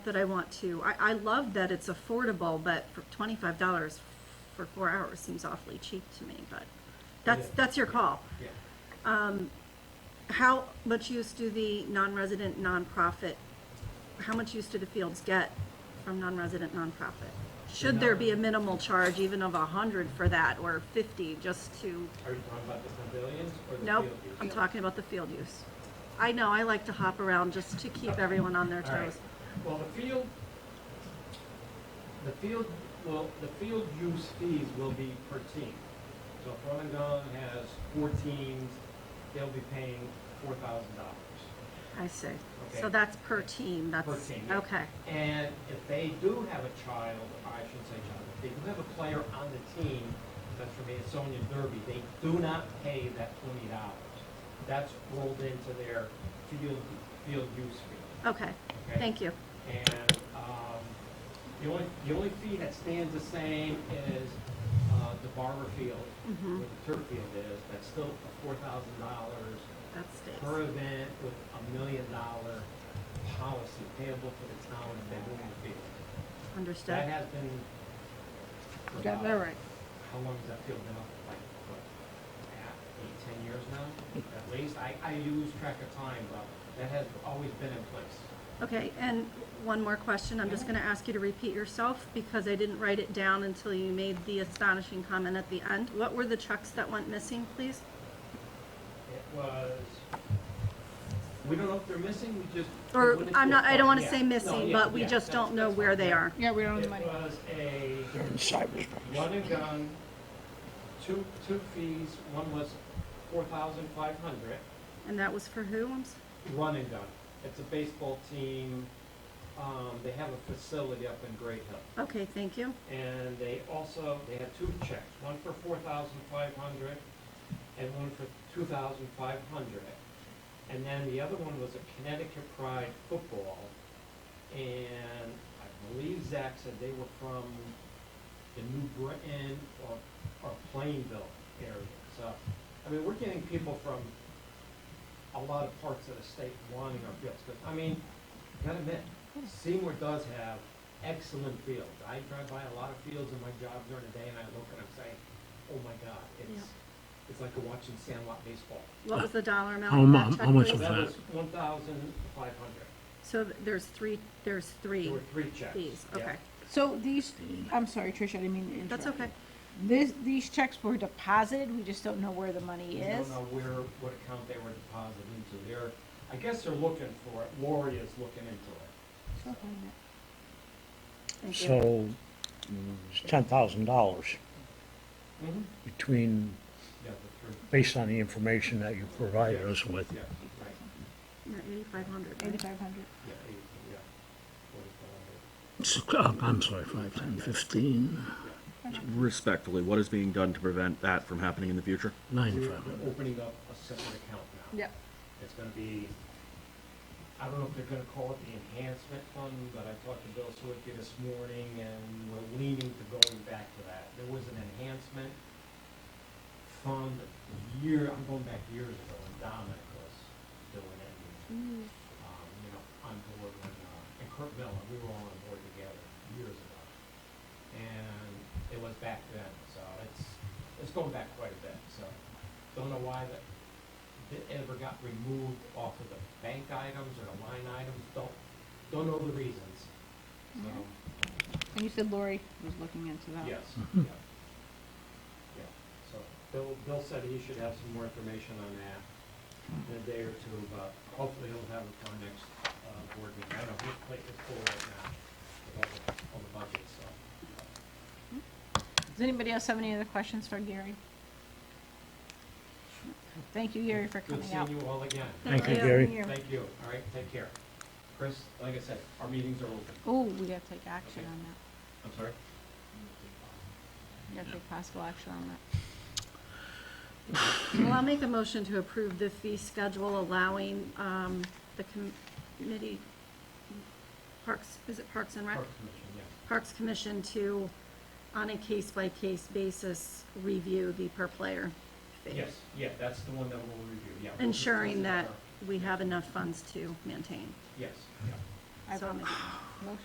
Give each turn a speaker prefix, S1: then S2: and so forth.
S1: that I want to. I, I love that it's affordable, but for twenty-five dollars for four hours seems awfully cheap to me, but that's,
S2: Yeah.
S1: that's your call.
S2: Yeah.
S1: How much use do the non-resident nonprofit, how much use do the fields get from non-resident nonprofit? Should there be a minimal charge even of a hundred for that or fifty just to,
S2: Are you talking about the pavilions or the
S1: nope,
S2: field use?
S1: I'm talking about the field use. I know, I like to hop around just to keep everyone on their
S2: All right.
S1: toes.
S2: Well, the field, the field, well, the field use fees will be per team. So if Rolling Gong has four teams, they'll be paying four thousand dollars.
S1: I see.
S2: Okay.
S1: So that's per team, that's,
S2: team, yeah.
S1: okay,
S2: And if they do have a child, or I shouldn't say child, if they do have a player on the team, that's from Sonia Derby, they do not pay that twenty dollars. That's rolled into their field, field use fee,
S1: okay,
S2: okay?
S1: thank you.
S2: And um, the only, the only fee that stands the same is uh, the barber field, where
S1: Mhm.
S2: the turf field is, that's still four thousand dollars
S1: That
S2: per
S1: stays.
S2: event with a million dollar policy payable for the town if they move the field. That
S1: Understood.
S2: has been. for
S3: Got that
S2: about-
S3: right.
S2: How long has that field been up? Like, what, half, eight, ten years now, at least? I, I lose track of time, but that has always been in place.
S1: Okay, and one more question. I'm just
S2: Yeah.
S1: going to ask you to repeat yourself because I didn't write it down until you made the astonishing comment at the end. What were the trucks that went missing, please?
S2: It was, we don't know if they're missing, we just.
S1: Or,
S2: we wouldn't-
S1: I'm not, I don't want to
S2: Yeah.
S1: say
S2: No,
S1: missing,
S2: yeah,
S1: but we
S2: yeah,
S1: just
S2: that's-
S1: don't know
S2: that's
S1: where
S2: fine,
S1: they
S2: yeah.
S1: are.
S3: Yeah, we don't have the
S2: It
S3: money.
S2: was a
S4: They're in cyberspace.
S2: run and gun, two, two fees, one was four thousand five hundred,
S1: And that was for who? I'm s-
S2: run and gun. It's a baseball team, um, they have a facility up in Great Hill.
S1: Okay, thank you.
S2: And they also, they had two checks, one for four thousand five hundred and one for two thousand five hundred. And then the other one was a Connecticut Pride football. And I believe Zach said they were from the New Britain or, or Plainville area. So, I mean, we're getting people from a lot of parts of the state wanting our fields. But, I mean, gotta admit, Seymour does have excellent fields. I drive by a lot of fields in my job during the day and I look and I'm saying, oh my God, it's, it's like watching Sandlot baseball.
S1: What was the dollar amount?
S4: How
S1: of that
S4: mu-
S1: check,
S4: how much
S1: please?
S4: was
S2: That
S4: that?
S2: was one thousand five hundred.
S1: So th- there's three, there's
S2: There
S1: three
S2: were three checks.
S1: fees,
S2: Yeah.
S1: okay.
S3: So these, I'm sorry, Tricia, I didn't mean to interrupt.
S1: That's okay.
S3: you. This, these checks were deposited, we just don't know where the
S2: We
S3: money
S2: don't
S3: is.
S2: know where, what account they were deposited into. They're, I guess they're looking for it. Lori is looking into it.
S3: She'll find it.
S1: Thank you.
S4: So mm, it's ten thousand dollars
S2: Mm-hmm.
S4: between,
S2: Yeah, the three,
S4: based on the information that you provided us with.
S2: yeah, right,
S1: Eighty-five hundred,
S3: Eighty-five hundred.
S2: yeah, eight, yeah. Forty-five
S4: S- oh, I'm sorry, five, ten, fifteen,
S5: Respectfully, what is being done to prevent that from happening in the future?
S4: ninety-five
S2: hundred.
S4: hundred.
S2: We're opening up a separate account now.
S3: Yep.
S2: It's gonna be, I don't know if they're gonna call it the enhancement fund, but I talked to Bill Sawicki this morning, and we're leaning to going back to that. There was an enhancement fund year, I'm going back years ago, and Dominic was doing it. and, Um, you know, on board when, uh, and Kurt Miller, we were all on board together years ago. And it was back then, so it's, it's going back quite a bit, so. Don't know why that that ever got removed off of the bank items or the line items, don't, don't know the reasons. So,
S3: And you said Lori was looking into that.
S2: yes, yeah. Yeah, so Bill, Bill said he should have some more information on that in a day or two, but hopefully he'll have it for our next, uh, board meeting. I know his plate is full right now with all the, all the budget, so.
S3: Does anybody else have any other questions for Gary? Thank you, Gary, for
S2: Good
S3: coming out.
S2: seeing you all again.
S4: Thank you,
S1: you.
S4: Gary.
S3: Here.
S2: Thank you, all right, take care. Chris, like I said, our meetings are open.
S3: Oh, we gotta take action on that.
S2: I'm sorry?
S3: We gotta take possible action on that.
S1: Well, I'll make a motion to approve the fee schedule allowing um, the committee, Parks, is it Parks and Rec?
S2: Parks Commission, yeah.
S1: Parks Commission to, on a case-by-case basis, review the per-player fee.
S2: Yes, yeah, that's the one that we'll review, yeah.
S1: Ensuring that we have enough funds to maintain.
S2: Yes, yeah.
S1: I
S6: So I'm
S1: promise.